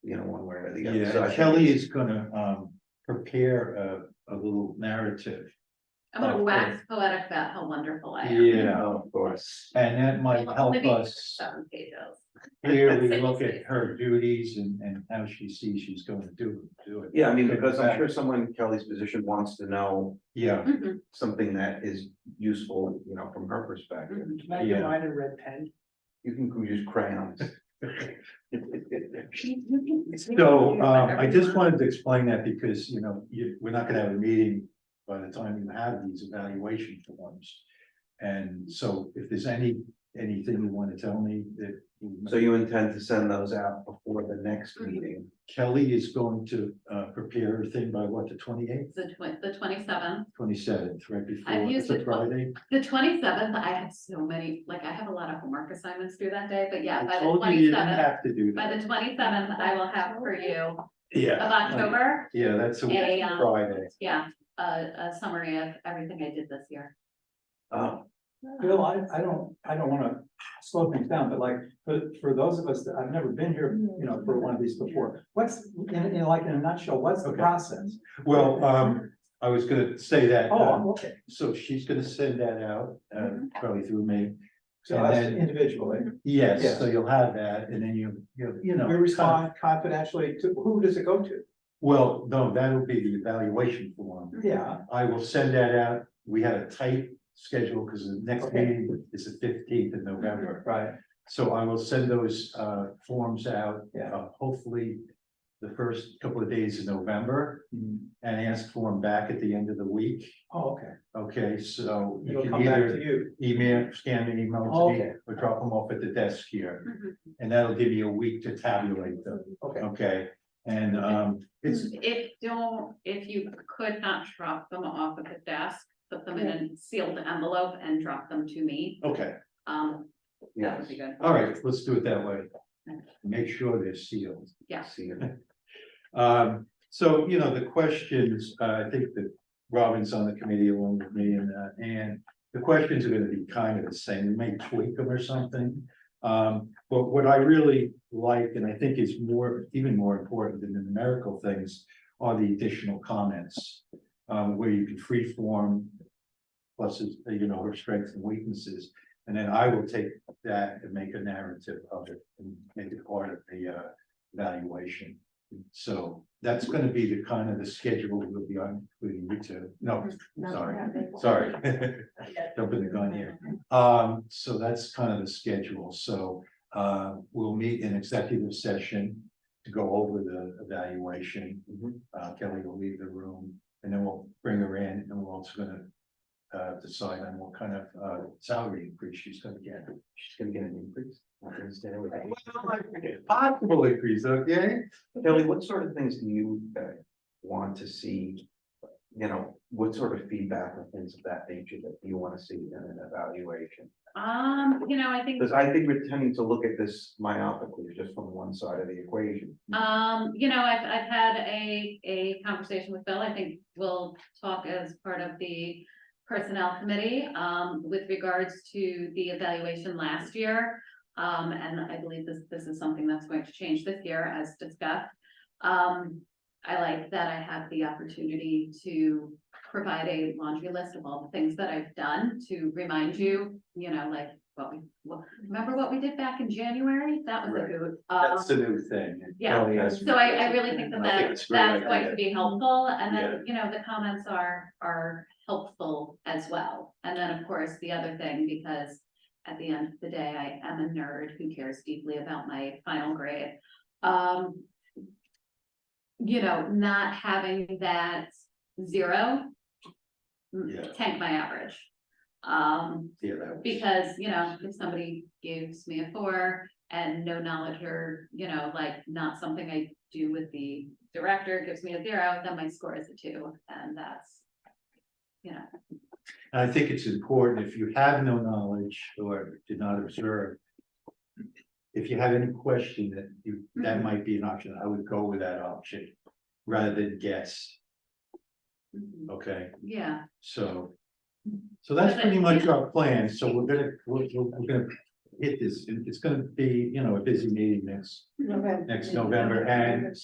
way or the other. So I Yeah, think Kelly it's- is gonna um prepare a a little narrative. I'm gonna Oh, wax poetic about how wonderful I am. Yeah, Oh, Of course. and that might Well, help maybe us Seven pages. here, we look at her duties and and how she sees she's gonna do do it. Yeah, I mean, because I'm Exactly. sure someone in Kelly's position wants to know Yeah, Mhm. something that is useful, you know, from her perspective. Mhm. Can Mm-hmm. I get Yeah. mine in red pen? You can use crayons. so um I just wanted to explain that because, you know, you, we're not gonna have a meeting by the time you have these evaluation forms. And so if there's any, anything you wanna tell me that. So you intend to send those out before the next Mm-hmm. Mhm. meeting? Kelly is going to uh prepare her thing by what, the twenty eighth, The twen- the twenty-seventh, twenty seventh, right before, I've it's used a it twice. Friday. the twenty-seventh, I have so many, like, I have a lot of homework assignments due that day, but yeah, I by the told you you didn't twenty-seventh. have to do By that. the twenty-seventh, I will have for you Yeah. of October, Yeah, that's a a, um, Friday. yeah, a, a summary of everything I did this year. Oh, Bill, I, I don't, I don't wanna slow things down, but like, for, for those of us that, I've never been here, you know, for one of these before. What's, in, in like, in a nutshell, what's the Okay. process? Well, um, I was gonna say that, Oh, um, I'm okay, so she's gonna send that out, uh, Mm-hmm. probably through me. so And us then- individually, Yes, Yeah. so you'll have that, and then you, you, you know. kind we of- respond confidentially to, who does it go to? Well, no, that'll be the evaluation form. Yeah, I will send that out. We had a tight schedule because the next Okay. meeting is the fifteenth of November. right, So I will send those uh forms out, Yeah. uh, hopefully the first couple of days of November Mm-hmm. and ask for them back at the end of the week. oh, okay, Okay, so you it'll can come back either to you, email, scan an email to me Okay. or drop them off at the desk here. Mhm. And that'll give you a week to tabulate them, okay, okay? And um, it's, Mm-hmm. If don't, if you could not drop them off at the desk, put them in a sealed envelope and drop them to me, okay, um, that yeah. would be good. all right, let's do it that way. Make sure they're sealed. See you. Um, so, you know, the questions, uh, I think that Robin's on the committee along with me and, uh, and the questions are gonna be kind of the same, we may tweak them or something. Um, but what I really like, and I think is more, even more important than the numerical things, are the additional comments. Um, where you can freeform pluses, uh, you know, her strengths and weaknesses. And then I will take that and make a narrative of it and make it part of the, uh, evaluation. So that's gonna be the kind of the schedule we'll be on, including you two, no, sorry, sorry. Jumping the gun here, um, so that's kind of the schedule, so, uh, we'll meet in executive session. To go over the evaluation, Mhm. uh, Kelly will leave the room, and then we'll bring her in, and we're also gonna. Uh, decide on what kind of, uh, salary increase she's gonna get. She's gonna get an increase. Not gonna stay away. Possible increase, okay? Kelly, what sort of things do you uh, want to see? You know, what sort of feedback or things of that nature that you want to see in an evaluation? Um, you know, I think. Because I think we're tending to look at this myopically, just from one side of the equation. Mm-hmm. Um, you know, I've, I've had a, a conversation with Bill, I think we'll talk as part of the personnel committee, um, with regards to the evaluation last year. Um, and I believe this, this is something that's going to change this year as discussed. Um, I like that I have the opportunity to provide a laundry list of all the things that I've done to remind you, you know, like, what we, what, remember what we did back in January? That was a Um, Right. good. That's the new thing. Yeah. Kelly has- So I, I really think that I think that, it's a great that's going idea. to be helpful, and then, you know, the comments are, are helpful as well. And then, of course, the other thing, because at the end of the day, I am a nerd who cares deeply about my final grade. Um. You know, not having that zero. Yeah. Tank my average. Um, Yeah, that was- because, you know, if somebody gives me a four and no knowledge or, you know, like not something I do with the director gives me a zero, then my score is a two and that's. You know, And I think it's important, if you have no knowledge or did not observe. If you have any question that you, that Mhm. might be an option, I would go with that option rather than guess, mhm, okay, yeah, so. So that's pretty much our plan, so we're gonna, we're, we're we're gonna hit this, it's gonna be, you know, a busy meeting next, next November, and